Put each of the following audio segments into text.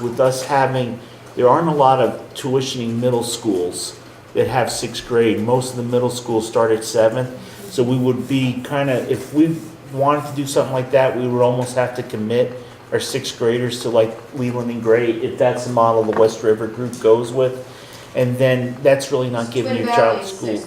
with us having, there aren't a lot of tuitioning middle schools that have sixth grade. Most of the middle schools start at seventh. So we would be kind of, if we wanted to do something like that, we would almost have to commit our sixth graders to like Leland and Gray, if that's the model the West River group goes with. And then that's really not giving your child school.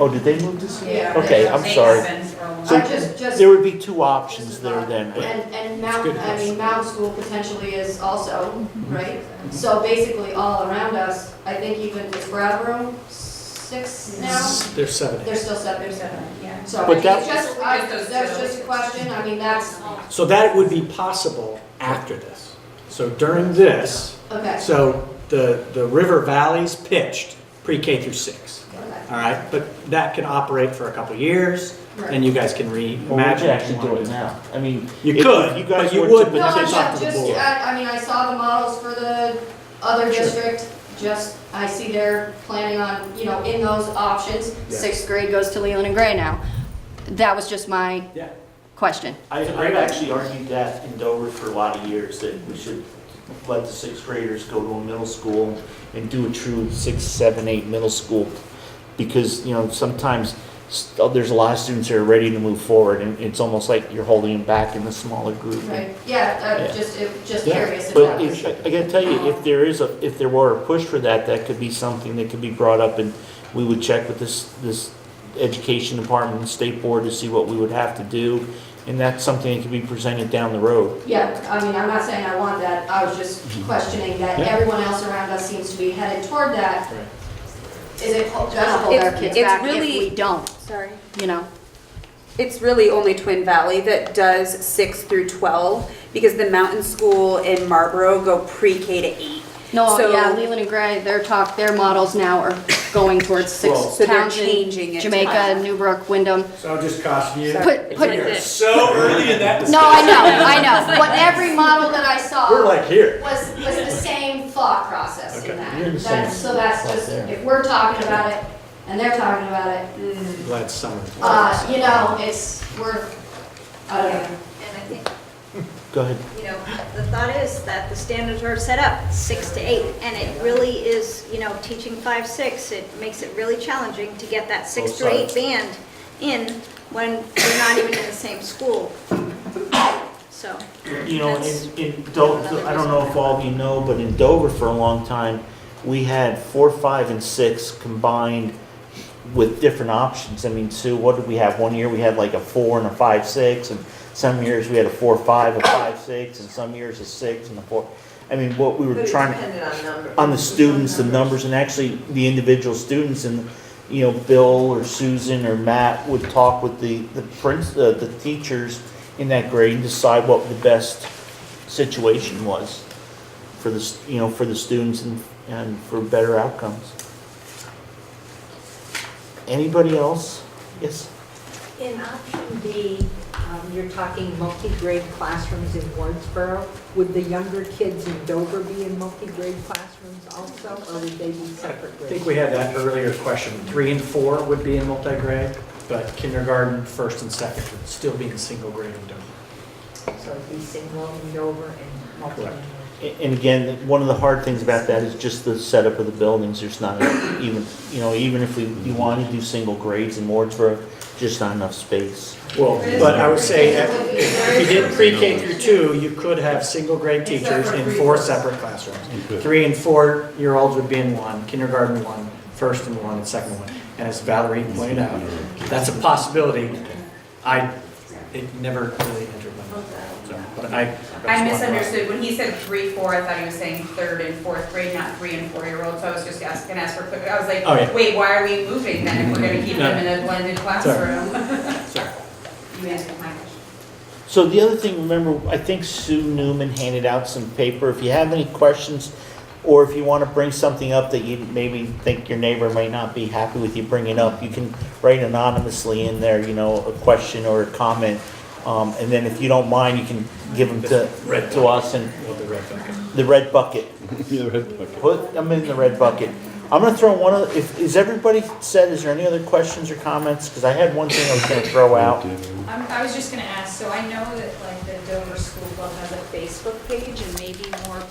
Oh, did they move to sixth? Yeah. Okay, I'm sorry. I So just, just, there would be two options there then. but- and, and Mount, I mean, Mount School potentially is also, Mm-hmm. right? So basically, all around us, I think even is Brattleboro six now? They're seven. They're still seven, There's seven. seven, yeah. So But it's that- just, I, that's just a question, I mean, that's, So that would be possible after this. So during this, okay, so the, the River Valley's pitched pre-K through six, okay, all right? But that can operate for a couple years, right. and you guys can Well, we could reimagine. actually do it now. I mean. You if- if could, you guys but you were to would- No, but I'm it's up not, to the just, uh, board. I, I mean, I saw the models for the other Sure. district, just, I see they're planning on, you know, in those options. Yeah. Sixth grade goes to Leland and Gray now. That was just my Yeah. question. I, I've actually argued that in Dover for a lot of years, that we should let the sixth graders go to a middle school and do a true six, seven, eight middle school. Because, you know, sometimes s- there's a lot of students that are ready to move forward and it's almost like you're holding them back in the smaller group. Right, yeah, Yeah. I'm just, it- just Yeah, curious if that But was. if, I gotta tell you, if there is a, if there were a push for that, that could be something that could be brought up and we would check with this, this education department and state board to see what we would have to do. And that's something that could be presented down the road. Yeah, I mean, I'm not saying I want that, I was just Mm-hmm. questioning that Yeah. everyone else around us seems to be headed toward that. Right. Is it ho- gonna hold our It's- kids it's back if really- we don't, Sorry. you know? It's really only Twin Valley that does six through 12 because the mountain school in Marlboro go pre-K to eight. No, So- yeah, Leland and Gray, their talk, their models now are going towards Well- six So they're towns in changing it. to Jamaica, five. Newbrook, Wyndham. So I'll just caution you. Put, put, You're so early in that no, I know, I know, but every model that I saw We're like here. was, was the same thought process in Okay, that. you're in the same That's- So that's spot just, there. if we're talking about it and they're talking about it, Mm. Glad summer. uh, you know, it's, we're, I don't know. And I think, Go ahead. you know, the thought is that the standards are set up, six to eight, and it really is, you know, teaching five, six, it makes it really challenging to get that six Both to sides. eight band in when we're not even in the same school. So, You know, That's- in, in Dover, I don't know if all of you know, but in Dover for a long time, we had four, five, and six combined with different options. I mean, Sue, what did we have? One year we had like a four and a five, six, and some years we had a four, five, a five, six, and some years a six and a four. I mean, what we were trying to on the students, the numbers, and actually the individual students, and, you know, Bill or Susan or Matt would talk with the, the prince, uh, the teachers in that grade and decide what the best situation was for the, s- you know, for the students and, and for better outcomes. Anybody else? Yes? In option B, um, you're talking multi-grade classrooms in Wardsboro. Would the younger kids in Dover be in multi-grade classrooms also, or would they be separate I think grades? we had that earlier question. Three and four would be in multi-grade, but kindergarten, first and second would still be in single grade and don't. So it'd be single in Dover and multi. Correct. A- And again, one of the hard things about that is just the setup of the buildings, there's not even, you know, even if we, you wanted to do single grades in Wardsboro, just not enough space. Well, but I would say, at- if you did pre-K through two, you could have single grade teachers in four separate classrooms. Three and four-year-olds would be in one, kindergarten one, first and one, and second one. And as Valerie pointed out, that's a possibility. I, it never really entered my mind, so, but I. I misunderstood, when he said three, four, I thought he was saying third and fourth grade, not three and four-year-olds, so I was just asking, ask for, quick- I was Oh, yeah. like, wait, why are we moving then if we're gonna keep them in a blended classroom? Sorry. You answered my question. So the other thing, remember, I think Sue Newman handed out some paper, if you have any questions, or if you want to bring something up that you maybe think your neighbor may not be happy with you bringing up, you can write anonymously in there, you know, a question or a comment. Um, and then if you don't mind, you can give them to, Red. to us and Well, the red bucket. the red bucket. Put them in the red bucket. I'm gonna throw one of, if, is everybody said, is there any other questions or comments? Because I had one thing I was gonna throw out. I'm, I was just gonna ask, so I know that like the Dover School Club has a Facebook page and maybe more